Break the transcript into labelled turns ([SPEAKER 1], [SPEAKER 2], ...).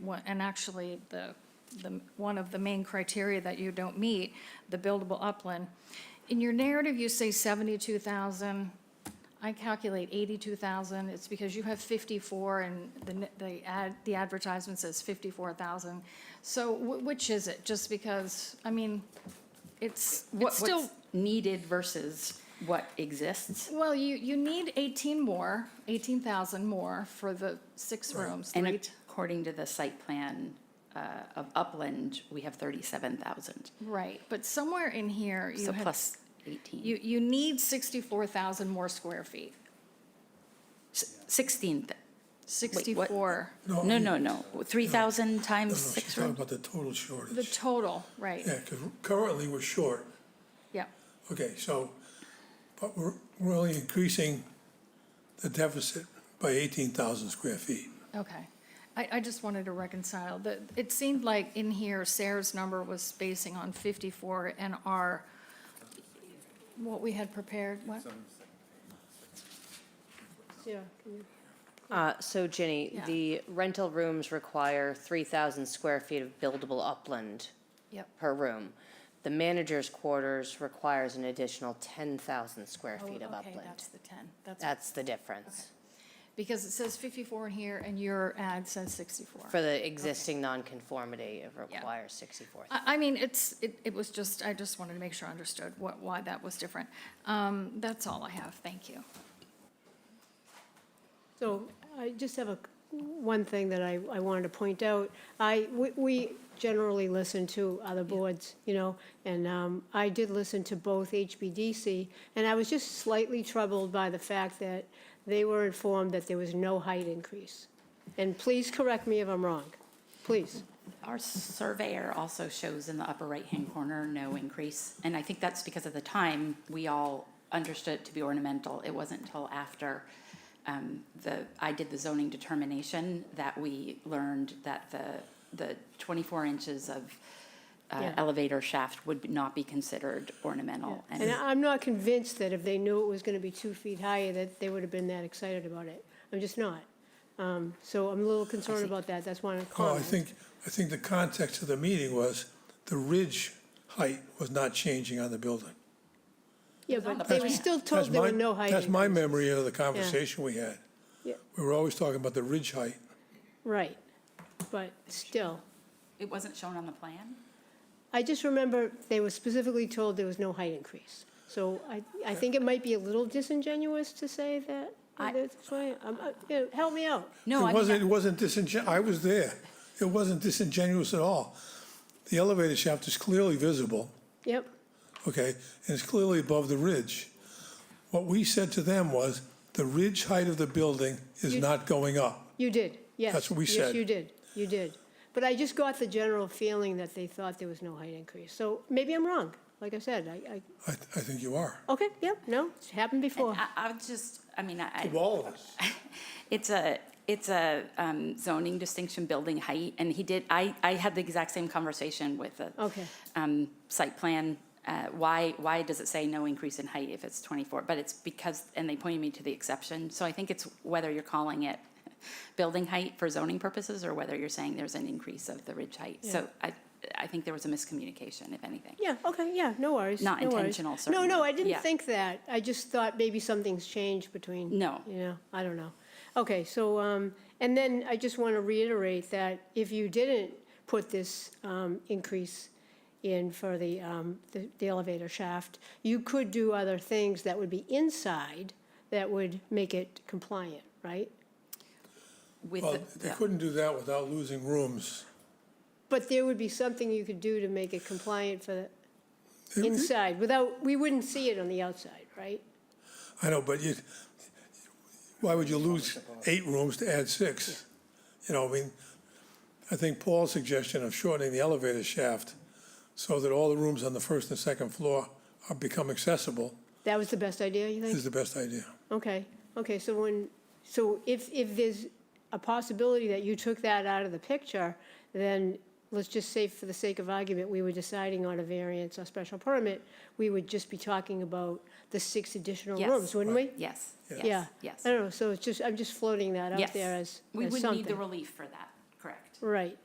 [SPEAKER 1] what, and actually, the, the, one of the main criteria that you don't meet, the buildable upland. In your narrative, you say seventy-two thousand, I calculate eighty-two thousand, it's because you have fifty-four, and the, n- the ad, the advertisement says fifty-four thousand. So wh- which is it? Just because, I mean, it's,
[SPEAKER 2] What-
[SPEAKER 1] it's still.
[SPEAKER 2] What's needed versus what exists?
[SPEAKER 1] Well, you, you need 18 more, 18,000 more for the six rooms.
[SPEAKER 2] And
[SPEAKER 1] three-
[SPEAKER 2] according to the site plan uh, of Upland, we have 37,000.
[SPEAKER 1] Right, but somewhere in here, you
[SPEAKER 2] So
[SPEAKER 1] had,
[SPEAKER 2] plus 18,
[SPEAKER 1] you, you need 64,000 more square feet.
[SPEAKER 2] S- 16. th- Wait, what?
[SPEAKER 1] 64,
[SPEAKER 2] No,
[SPEAKER 3] No,
[SPEAKER 2] no, no, 3,000
[SPEAKER 3] No,
[SPEAKER 2] times
[SPEAKER 3] no, she's
[SPEAKER 2] six
[SPEAKER 3] talking
[SPEAKER 2] rooms?
[SPEAKER 3] about the total
[SPEAKER 1] the
[SPEAKER 3] shortage.
[SPEAKER 1] total, right,
[SPEAKER 3] Yeah, because currently we're short.
[SPEAKER 1] yeah.
[SPEAKER 3] Okay, so, but we're, we're only increasing the deficit by eighteen thousand square feet.
[SPEAKER 1] Okay. I, I just wanted to reconcile. The, it seemed like in here Sarah's number was basing on 54 and our, what we had prepared, what? Yeah.
[SPEAKER 4] Uh, So Ginny,
[SPEAKER 1] Yeah.
[SPEAKER 4] the rental rooms require 3,000 square feet of buildable upland
[SPEAKER 1] Yep.
[SPEAKER 4] per room. The manager's quarters requires an additional 10,000 square
[SPEAKER 1] Oh,
[SPEAKER 4] feet of
[SPEAKER 1] okay,
[SPEAKER 4] upland.
[SPEAKER 1] that's the 10. That's
[SPEAKER 4] That's the difference
[SPEAKER 1] Because it says 54 in here and your ad says 64.
[SPEAKER 4] for the existing nonconformity. It
[SPEAKER 1] Yeah.
[SPEAKER 4] requires 64.
[SPEAKER 1] I, I mean, it's, it, it was just, I just wanted to make sure I understood what, why that was different. Um, that's all I have, thank you.
[SPEAKER 5] So I just have a, one thing that I, I wanted to point out. I, we, we generally listen to other boards, you know, and, um, I did listen to both HBDC, and I was just slightly troubled by the fact that they were informed that there was no height increase. And please correct me if I'm wrong, please.
[SPEAKER 2] Our surveyor also shows in the upper right-hand corner, no increase. And I think that's because at the time, we all understood it to be ornamental. It wasn't until after um, the, I did the zoning determination that we learned that the, the 24 inches of uh,
[SPEAKER 5] Yeah.
[SPEAKER 2] elevator shaft would not be considered ornamental.
[SPEAKER 5] And I'm not convinced that if they knew it was gonna be two feet higher, that they would have been that excited about it. I'm just not. Um, so I'm a little concerned about that, that's why I'm
[SPEAKER 3] Oh, I
[SPEAKER 5] calling.
[SPEAKER 3] think, I think the context of the meeting was the ridge height was not changing on the building.
[SPEAKER 5] Yeah, but they were still told
[SPEAKER 3] That's
[SPEAKER 5] there were
[SPEAKER 3] my-
[SPEAKER 5] no height
[SPEAKER 3] That's my
[SPEAKER 5] increases.
[SPEAKER 3] memory of the conversation we had.
[SPEAKER 5] Yeah.
[SPEAKER 3] We were always talking about the ridge height.
[SPEAKER 5] Right, but still,
[SPEAKER 2] It wasn't shown on the plan?
[SPEAKER 5] I just remember they were specifically told there was no height increase. So I, I think it might be a little disingenuous to say that,
[SPEAKER 2] I-
[SPEAKER 5] that's why, I'm, uh, yeah, help me out.
[SPEAKER 2] No, I
[SPEAKER 3] It
[SPEAKER 2] mean,
[SPEAKER 3] wasn't, it wasn't disingen, I was there. It wasn't disingenuous at all. The elevator shaft is clearly visible,
[SPEAKER 5] Yep,
[SPEAKER 3] okay, and it's clearly above the ridge. What we said to them was, the ridge height of the building is not going up.
[SPEAKER 5] you did, yes.
[SPEAKER 3] That's what we said.
[SPEAKER 5] Yes, you did, you did. But I just got the general feeling that they thought there was no height increase. So maybe I'm wrong, like I said, I, I,
[SPEAKER 3] I, I think you are.
[SPEAKER 5] okay, yep, no, it's happened before.
[SPEAKER 2] I, I would just, I mean, I. I-
[SPEAKER 3] all of us.
[SPEAKER 2] It's a, it's a um, zoning distinction building height, and he did, I, I had the exact same conversation with the
[SPEAKER 5] Okay.
[SPEAKER 2] um, site plan. Uh, Why, why does it say no increase in height if it's 24? But it's because, and they pointed me to the exception, so I think it's whether you're calling it building height for zoning purposes, or whether you're saying there's an increase of the ridge height. So I, I think there was a miscommunication, if anything.
[SPEAKER 5] Yeah, okay, yeah, no worries.
[SPEAKER 2] Not
[SPEAKER 5] no worries.
[SPEAKER 2] intentional,
[SPEAKER 5] No, no,
[SPEAKER 2] certainly.
[SPEAKER 5] I
[SPEAKER 2] Yeah.
[SPEAKER 5] didn't think that. I just thought maybe something's changed between.
[SPEAKER 2] No.
[SPEAKER 5] You know, I don't know. Okay, so, um, and then I just want to reiterate that if you didn't put this, um, increase in for the, um, the the elevator shaft, you could do other things that would be inside that would make it compliant, right?
[SPEAKER 2] With,
[SPEAKER 3] Well,
[SPEAKER 2] the-
[SPEAKER 3] they
[SPEAKER 2] yeah.
[SPEAKER 3] couldn't do that without losing rooms.
[SPEAKER 5] But there would be something you could do to make it compliant for the inside without, we wouldn't see it on the outside, right?
[SPEAKER 3] I know, but you, why would you lose eight rooms to add six? You know, I mean, I think Paul's suggestion of shortening the elevator shaft so that all the rooms on the first and second floor are, become accessible
[SPEAKER 5] That was the best idea, you think?
[SPEAKER 3] is the best idea.
[SPEAKER 5] Okay, okay, so when, so if, if there's a possibility that you took that out of the picture, then let's just say for the sake of argument, we were deciding on a variance or special permit, we would just be talking about the six additional
[SPEAKER 2] Yes.
[SPEAKER 5] rooms, wouldn't we?
[SPEAKER 2] Yes,
[SPEAKER 5] Yeah.
[SPEAKER 2] yes, yes.
[SPEAKER 5] I don't know, so it's just, I'm just floating that
[SPEAKER 2] Yes.
[SPEAKER 5] out there as,
[SPEAKER 2] We
[SPEAKER 5] as
[SPEAKER 2] would need the
[SPEAKER 5] something.
[SPEAKER 2] relief for that, correct.
[SPEAKER 5] Right.